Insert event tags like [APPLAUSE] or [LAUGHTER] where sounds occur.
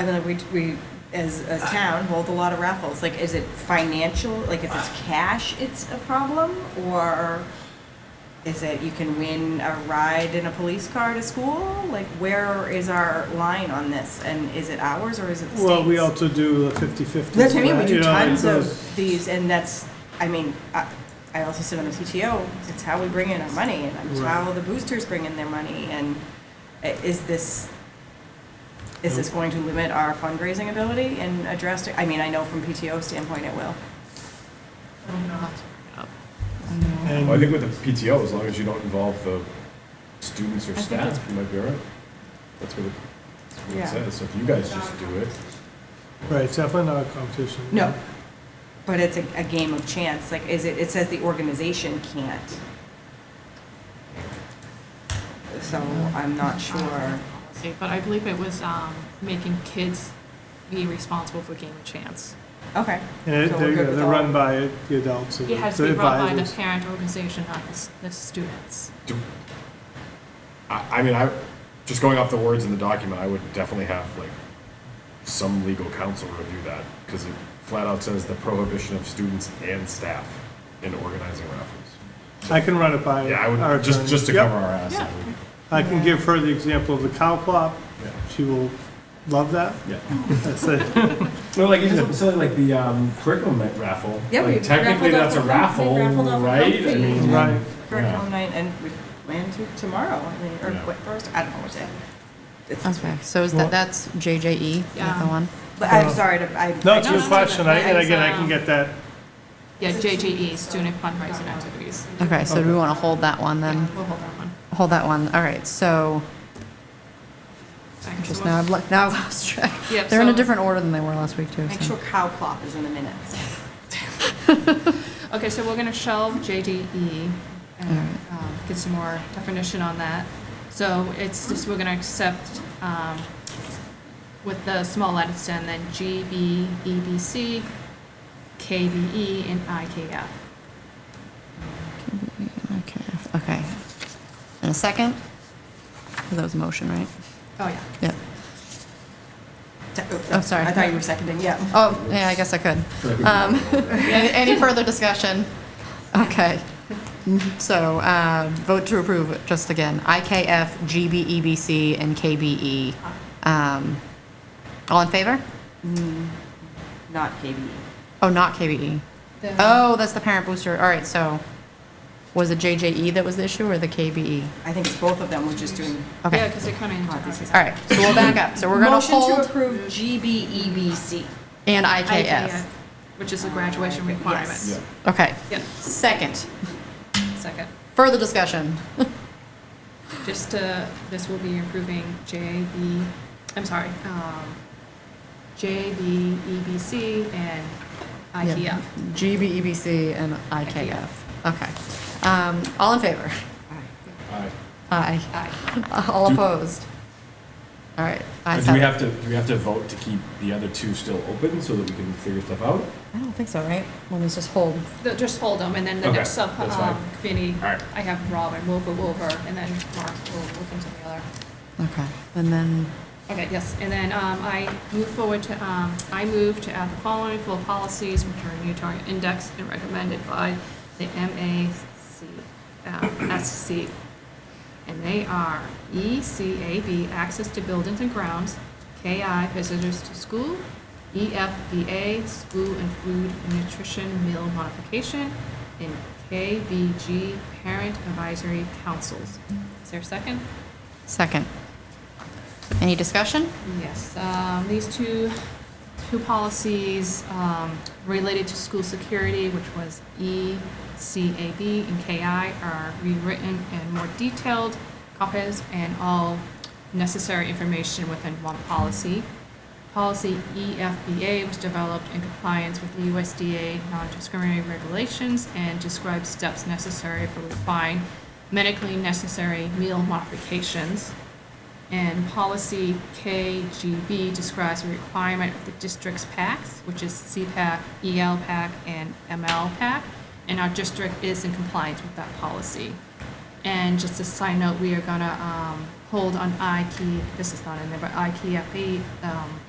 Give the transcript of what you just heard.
I mean, like, we, we, as a Uh, town, hold a lot of raffles. Like, is it financial, like, if it's uh, cash, it's a problem? Or is it you can win a ride in a police car to school? Like, where is our line on this? And is it ours or is it the state's? Well, we also do the fifty-fifty. That's what I mean, we right? do You know, like tons those- of these, and that's, I mean, I, I also sit on the PTO, it's how we bring in our money, and it's Right. how the boosters bring in their money, and i- is this, is this going to limit our fundraising ability and address, I mean, I know from PTO standpoint it will. and- Well, I think with the PTO, as long as you don't involve the students or think staff, that's- you might be all right. That's what it, that's what it Yeah. says. So if you guys just do it, Right, it's definitely not a competition. No, but it's a, a game of chance, like, is it, it says the organization can't. So I'm not Uh-huh. sure. Okay, But I believe it was um, making kids be responsible for game of chance. Okay. And it- So we're they're, good with they're all- run by the adults and the It has to be run by the Mhm. advisors. parent organization, not the, s- the students. do, I, I mean, I, just going off the words in the document, I would definitely have like some legal counsel review that because it flat out says the prohibition of students and staff in organizing raffles. I can run it by Yeah, I Uh, our would, just, attorney. just to Yep. cover our ass. I would- I can give her the example of the cow plop. Yeah. She will love that. [LAUGHS] Yeah. That's it. No, like even something silly like the um, curriculum night raffle. Yeah, like, we technically raffled that's off a a comfy- raffle, raffled off a right? comfy. I mean, Right. Yeah. curriculum night, and we plan to tomorrow, I mean, or Yeah. what, Thursday, I don't know what day. It's- Okay, so is Well- that, that's JJE, is that Yeah. the one? But I'm sorry to, I. No, it's a good No, no, no, question. I- but And it's, again, I um, can get that. Yeah, JJE, student fundraising activities. Okay, so do we want to hold that one Yeah, then? We'll hold that one. Hold that one, all right, so, Thanks. just So now we'll- I've, lo- now I've [LAUGHS] lost track. Yep, They're in a so- different order than they were last week too, Make so. sure cow plop is in the minutes. Okay, so we're gonna shelve JDE and um, get some more definition on that. So it's just, we're gonna accept um, with the small letters and then E GB, EBC, KBE, E, and IKF. Okay, okay. And a second? 'Cause That was a motion, right? Oh, yeah. Yep. Oh, sorry. I thought you were seconding, yeah. Oh, yeah, I guess I could. Um, [LAUGHS] Any any further discussion? Okay. So uh, vote to approve, just again, IKF, GBEBC, E and KBE. Um, All in favor? Not E. KBE. Oh, not KBE. The- Oh, that's the parent booster. All right, so was it JJE that was the issue or the KBE? I think it's both of them, we're just doing. Okay. Yeah, because they're coming Oh, this is- All right, so we'll back up. So we're going to Motion to hold approve E GBEBC. and IKF. Which is a graduation Yes. yeah. requirement. Okay. Yeah, Second, second. further discussion. Just to, this will be improving JB, I'm sorry, um, JB, EBC, and E, IKF. GBEBC E and IKF. Okay. Um, All in favor? Alright. Aye. [LAUGHS] Aye. All Do- opposed? All right. But ayes do we have have to do we have to vote to keep the other two still open so that we can figure stuff out? it. I don't think so, right? Let me just hold. The- Just hold them, and then the Okay, next sub, that's fine. um, committee, All right. I have Robin, we'll go over, and then Mark will look into the other. Okay. And then, Okay, yes, and then um, I move forward to, um, I move to add the following full policies, which are new to our index and recommended by the MASC. And they are ECAB, access to buildings and grounds, KI, visitors to school, E EFBA, school and food nutrition meal modification, and KBG, parent advisory councils. Is there a second? second. Any discussion? Yes, um, these two, two policies um, related to school security, which was E ECAB and KI, are rewritten and more detailed copies and all necessary information within one policy. Policy E EFBA was developed in compliance with the USDA non-discriminatory regulations and describes steps necessary for refined medically necessary meal modifications. And policy KGB describes the requirement of the district's PACs, which is CPAC, EL PAC, and ML PAC, and our district is in compliance with that policy. And just a side E, note, we are gonna E um, hold on IK, this is not in there, but IKFE, um,